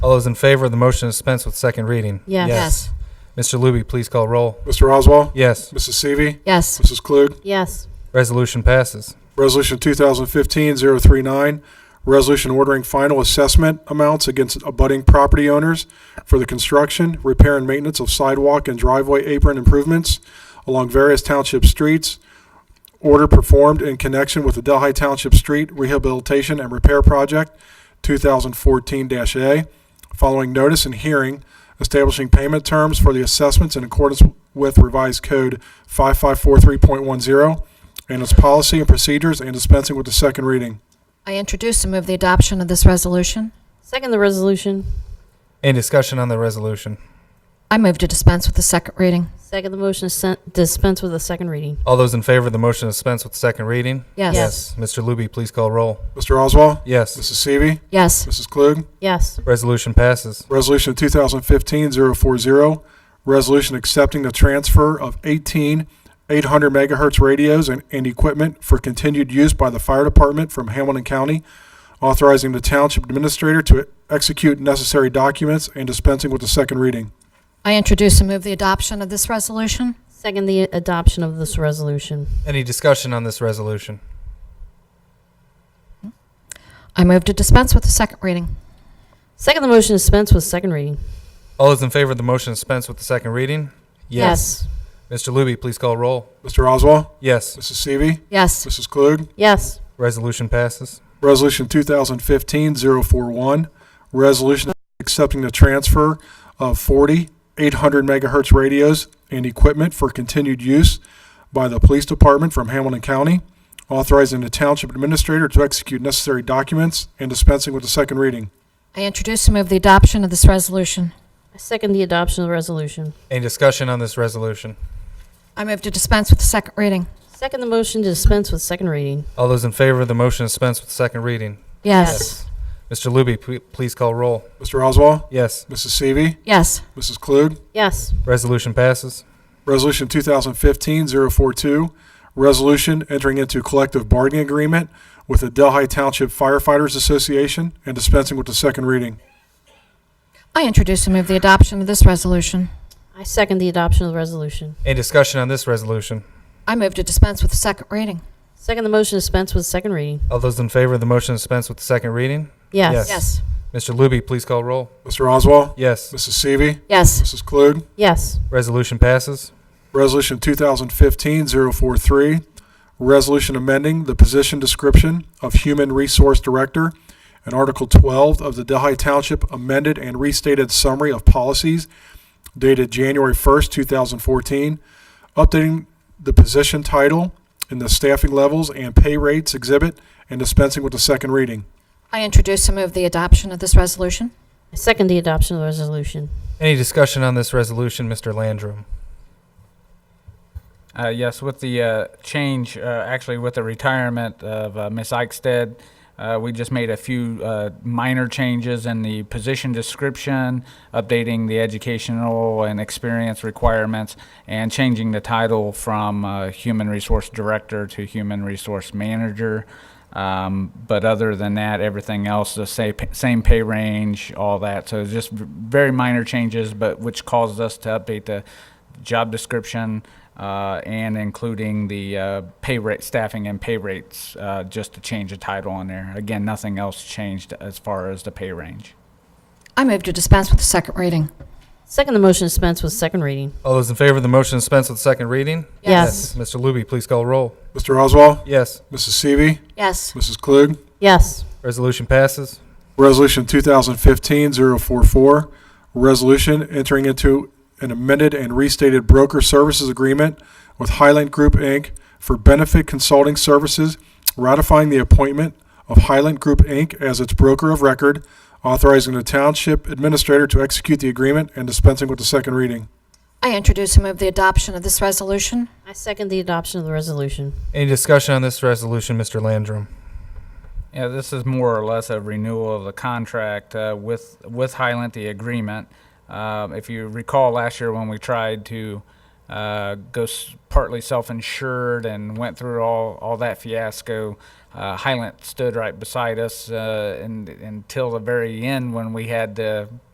All those in favor of the motion to dispense with second reading? Yes. Mr. Luby, please call roll. Mr. Oswald? Yes. Mrs. Seavey? Yes. Mrs. Klug? Yes. Resolution passes. Resolution 2015-039, resolution ordering final assessment amounts against abutting property owners for the construction, repair, and maintenance of sidewalk and driveway apron improvements along various township streets. Order performed in connection with the Delhi Township Street Rehabilitation and Repair Project 2014-A, following notice and hearing, establishing payment terms for the assessments in accordance with revised code 5543.10 and its policy and procedures and dispensing with the second reading. I introduce and move the adoption of this resolution. Second the resolution. Any discussion on the resolution? I move to dispense with the second reading. Second the motion to sen- dispense with the second reading. All those in favor of the motion to dispense with second reading? Yes. Yes. Mr. Luby, please call roll. Mr. Oswald? Yes. Mrs. Seavey? Yes. Mrs. Klug? Yes. Resolution passes. Resolution 2015-040, resolution accepting the transfer of 18 800 megahertz radios and, and equipment for continued use by the fire department from Hamilton County, authorizing the township administrator to execute necessary documents and dispensing with the second reading. I introduce and move the adoption of this resolution. Second the adoption of this resolution. Any discussion on this resolution? I move to dispense with the second reading. Second the motion to dispense with second reading. All those in favor of the motion to dispense with the second reading? Mr. Luby, please call roll. Mr. Oswald? Yes. Mrs. Seavey? Yes. Mrs. Klug? Yes. Resolution passes. Resolution 2015-041, resolution accepting the transfer of 40 800 megahertz radios and equipment for continued use by the police department from Hamilton County, authorizing the township administrator to execute necessary documents and dispensing with the second reading. I introduce and move the adoption of this resolution. I second the adoption of the resolution. Any discussion on this resolution? I move to dispense with the second reading. Second the motion to dispense with second reading. All those in favor of the motion to dispense with second reading? Yes. Mr. Luby, p- please call roll. Mr. Oswald? Yes. Mrs. Seavey? Yes. Mrs. Klug? Yes. Resolution passes. Resolution 2015-042, resolution entering into collective bargaining agreement with the Delhi Township Firefighters Association and dispensing with the second reading. I introduce and move the adoption of this resolution. I second the adoption of the resolution. Any discussion on this resolution? I move to dispense with the second reading. Second the motion to dispense with second reading. All those in favor of the motion to dispense with the second reading? Yes. Yes. Mr. Luby, please call roll. Mr. Oswald? Yes. Mrs. Seavey? Yes. Mrs. Klug? Yes. Resolution passes. Resolution 2015-043, resolution amending the position description of Human Resource Director and Article 12 of the Delhi Township amended and restated summary of policies dated January 1st, 2014, updating the position title in the staffing levels and pay rates exhibit and dispensing with the second reading. I introduce and move the adoption of this resolution. I second the adoption of the resolution. Any discussion on this resolution, Mr. Landrum? Uh, yes, with the uh, change, uh, actually, with the retirement of uh, Miss Eichstead, uh, we just made a few uh, minor changes in the position description, updating the educational and experience requirements, and changing the title from uh, Human Resource Director to Human Resource Manager. Um, but other than that, everything else the same same pay range, all that. So it's just v- very minor changes, but which caused us to update the job description uh, and including the uh, pay rate, staffing and pay rates, uh, just to change the title on there. Again, nothing else changed as far as the pay range. I move to dispense with the second reading. Second the motion to dispense with second reading. All those in favor of the motion to dispense with the second reading? Yes. Mr. Luby, please call roll. Mr. Oswald? Yes. Mrs. Seavey? Yes. Mrs. Klug? Yes. Resolution passes. Resolution 2015-044, resolution entering into an amended and restated broker services agreement with Highland Group, Inc. for benefit consulting services, ratifying the appointment of Highland Group, Inc. as its broker of record, authorizing the township administrator to execute the agreement and dispensing with the second reading. I introduce and move the adoption of this resolution. I second the adoption of the resolution. Any discussion on this resolution, Mr. Landrum? Yeah, this is more or less a renewal of the contract uh, with with Highland, the agreement. Um, if you recall last year when we tried to uh, uh, goes partly self-insured and went through all, all that fiasco. Uh, Highland stood right beside us uh, and, until the very end when we had to